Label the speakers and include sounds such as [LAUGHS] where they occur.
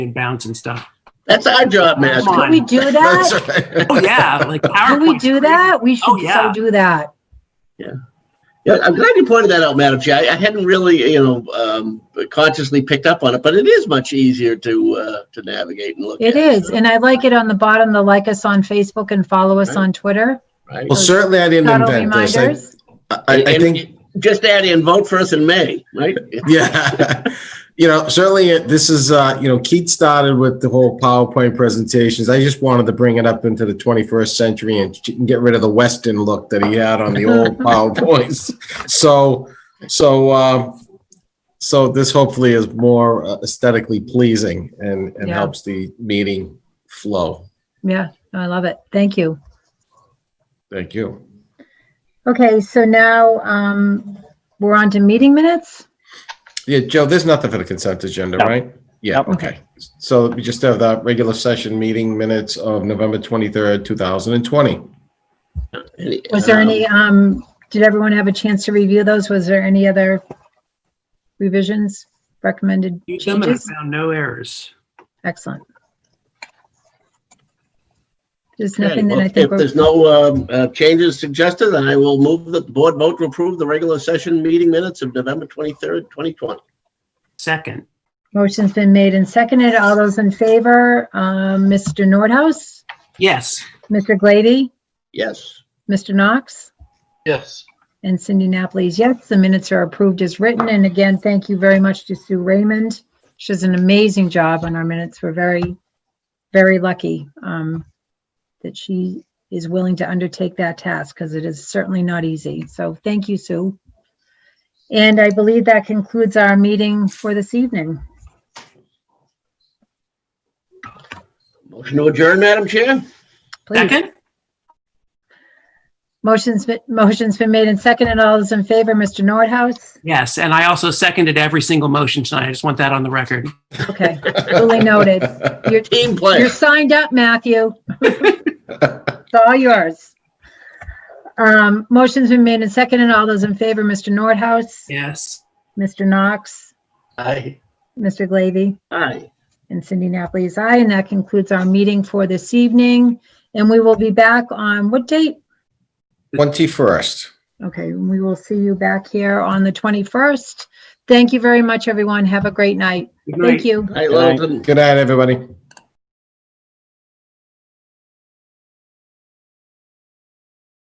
Speaker 1: and bounce and
Speaker 2: [LAUGHS]
Speaker 1: stuff.
Speaker 3: That's our job,
Speaker 1: Come
Speaker 3: Master.
Speaker 1: on.
Speaker 2: Could we
Speaker 3: [LAUGHS]
Speaker 2: do
Speaker 3: That's
Speaker 2: that?
Speaker 3: right.
Speaker 1: Oh yeah, [LAUGHS] like PowerPoint.
Speaker 2: Could we do that? We
Speaker 1: Oh,
Speaker 2: should
Speaker 1: yeah.
Speaker 2: so do that.
Speaker 3: Yeah, I'm glad you pointed that out, Madam Chair. I, I hadn't really, you know, um, consciously picked up on it, but it is much easier to uh, to navigate and look. at,
Speaker 2: It is. And I like it on the bottom, the like us on Facebook and follow us on Twitter.
Speaker 3: Right?
Speaker 4: Well, certainly I didn't
Speaker 2: Subtle
Speaker 4: invent this. I-
Speaker 2: reminders.
Speaker 4: I, I
Speaker 3: And-
Speaker 4: think,
Speaker 3: Just add in vote for us in May, right?
Speaker 4: yeah, [LAUGHS] you know, certainly uh, this is, uh, you know, Keith started with the whole PowerPoint presentations. I just wanted to bring it up into the 21st century and ch- get rid of the Western look that he had on
Speaker 2: [LAUGHS]
Speaker 4: the old PowerPoints. So, so, um, so this hopefully is more uh, aesthetically pleasing and, and
Speaker 2: Yeah.
Speaker 4: helps the meeting flow.
Speaker 2: Yeah, I love it. Thank you.
Speaker 4: Thank you.
Speaker 2: Okay, so now um, we're on to meeting minutes.
Speaker 4: Yeah, Joe, there's nothing for the consent agenda,
Speaker 1: No.
Speaker 4: right? Yeah,
Speaker 1: Nope.
Speaker 4: okay. So we just have the regular session meeting minutes of November 23rd, [LAUGHS] 2020.
Speaker 2: Was there any, um, did everyone have a chance to review those? Was there any other revisions, recommended
Speaker 1: Use them and I
Speaker 2: changes?
Speaker 1: found no errors.
Speaker 2: Excellent. There's
Speaker 3: Okay,
Speaker 2: nothing that
Speaker 3: well,
Speaker 2: I think,
Speaker 3: If
Speaker 2: we're-
Speaker 3: there's no um, uh, changes suggested, then I will move that the board vote to approve the regular session meeting minutes of November 23rd, 2020.
Speaker 1: Second,
Speaker 2: motion's been made and seconded. All those in favor, um, Mr. Nordhaus,
Speaker 1: yes,
Speaker 2: Mr. Glady,
Speaker 3: Yes.
Speaker 2: Mr. Knox,
Speaker 3: Yes.
Speaker 2: and Cindy Napoli is yes. The minutes are approved as written. And again, thank you very much to Sue Raymond. She does an amazing job on our minutes. We're very, very lucky um, that she is willing to undertake that task because it is certainly not easy. So thank you, Sue. And I believe that concludes our meeting for this evening.
Speaker 3: Motion to adjourn, Madam Chair?
Speaker 2: Please.
Speaker 1: second,
Speaker 2: Motion's, been- motion's been made and seconded. All those in favor, Mr. Nordhaus?
Speaker 1: yes. And I also seconded every single motion tonight. I just want that on the record.
Speaker 2: Okay, duly noted. You're,
Speaker 3: Team
Speaker 2: You're
Speaker 3: player.
Speaker 2: signed up, Matthew. It's all yours. Um, motion's been made and seconded. All those in favor, Mr. Nordhaus,
Speaker 1: Yes,
Speaker 2: Mr. Knox,
Speaker 3: Aye.
Speaker 2: Mr. Glavy,
Speaker 3: Aye.
Speaker 2: and Cindy Napoli is aye. And that concludes our meeting for this evening. And we will be back on what date?
Speaker 4: 21st.
Speaker 2: Okay, we will see you back here on the 21st. Thank you very much, everyone. Have a great night.
Speaker 1: Good night.
Speaker 2: Thank you.
Speaker 3: Aye, Littleton.
Speaker 4: Good night, everybody.